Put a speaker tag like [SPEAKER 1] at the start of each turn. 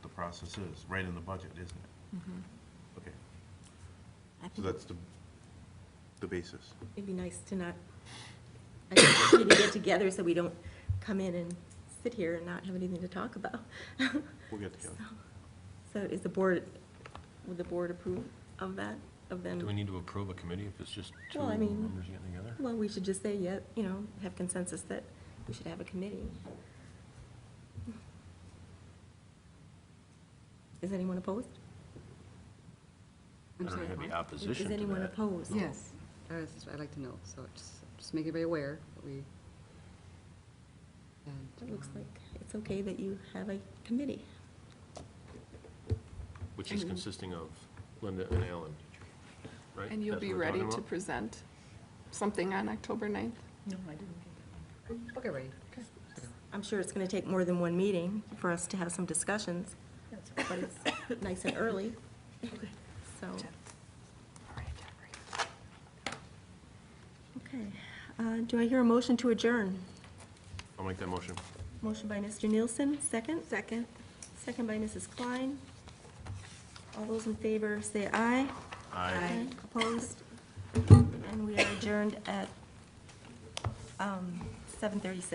[SPEAKER 1] process is, right in the budget, isn't it? Okay,
[SPEAKER 2] I
[SPEAKER 1] so
[SPEAKER 2] think
[SPEAKER 1] that's the, the basis.
[SPEAKER 2] it'd be nice to not, I think we need to get together so we don't come in and sit here and not have anything to talk about.
[SPEAKER 1] We'll get together.
[SPEAKER 2] So is the board, would the board approve of that, of
[SPEAKER 3] Do we
[SPEAKER 2] them?
[SPEAKER 3] need to approve a committee if it's just two
[SPEAKER 2] Well, I mean-
[SPEAKER 3] members getting together?
[SPEAKER 2] Well, we should just say, yeah, you know, have consensus that we should have a committee. Is anyone opposed?
[SPEAKER 3] I
[SPEAKER 4] I'm
[SPEAKER 3] don't
[SPEAKER 4] sorry.
[SPEAKER 3] have any
[SPEAKER 4] what?
[SPEAKER 2] Is
[SPEAKER 3] opposition to
[SPEAKER 2] is
[SPEAKER 3] that.
[SPEAKER 2] anyone opposed?
[SPEAKER 4] Yes, I was- I'd like to know, so just, just make everybody aware that we. and,
[SPEAKER 2] It looks
[SPEAKER 4] um,
[SPEAKER 2] like it's okay that you have a committee.
[SPEAKER 3] Which is consisting of Linda and Alan, right?
[SPEAKER 5] And you'll
[SPEAKER 3] That's
[SPEAKER 5] be
[SPEAKER 3] what we're
[SPEAKER 5] ready
[SPEAKER 3] talking
[SPEAKER 5] to
[SPEAKER 3] about?
[SPEAKER 5] present something on October 9th?
[SPEAKER 2] No, I didn't get that.
[SPEAKER 4] Okay, um, ready.
[SPEAKER 2] I'm sure it's going to take more than one meeting for us to have some discussions, but it's nice and early, so. Okay, Uh, do I hear a motion to adjourn?
[SPEAKER 3] I'll make that motion.
[SPEAKER 2] Motion by Mr. Nielsen, second? Second. Second by Mrs. Klein. All those in favor, say aye.
[SPEAKER 3] Aye.
[SPEAKER 2] Opposed? And we are adjourned at um, 7:36.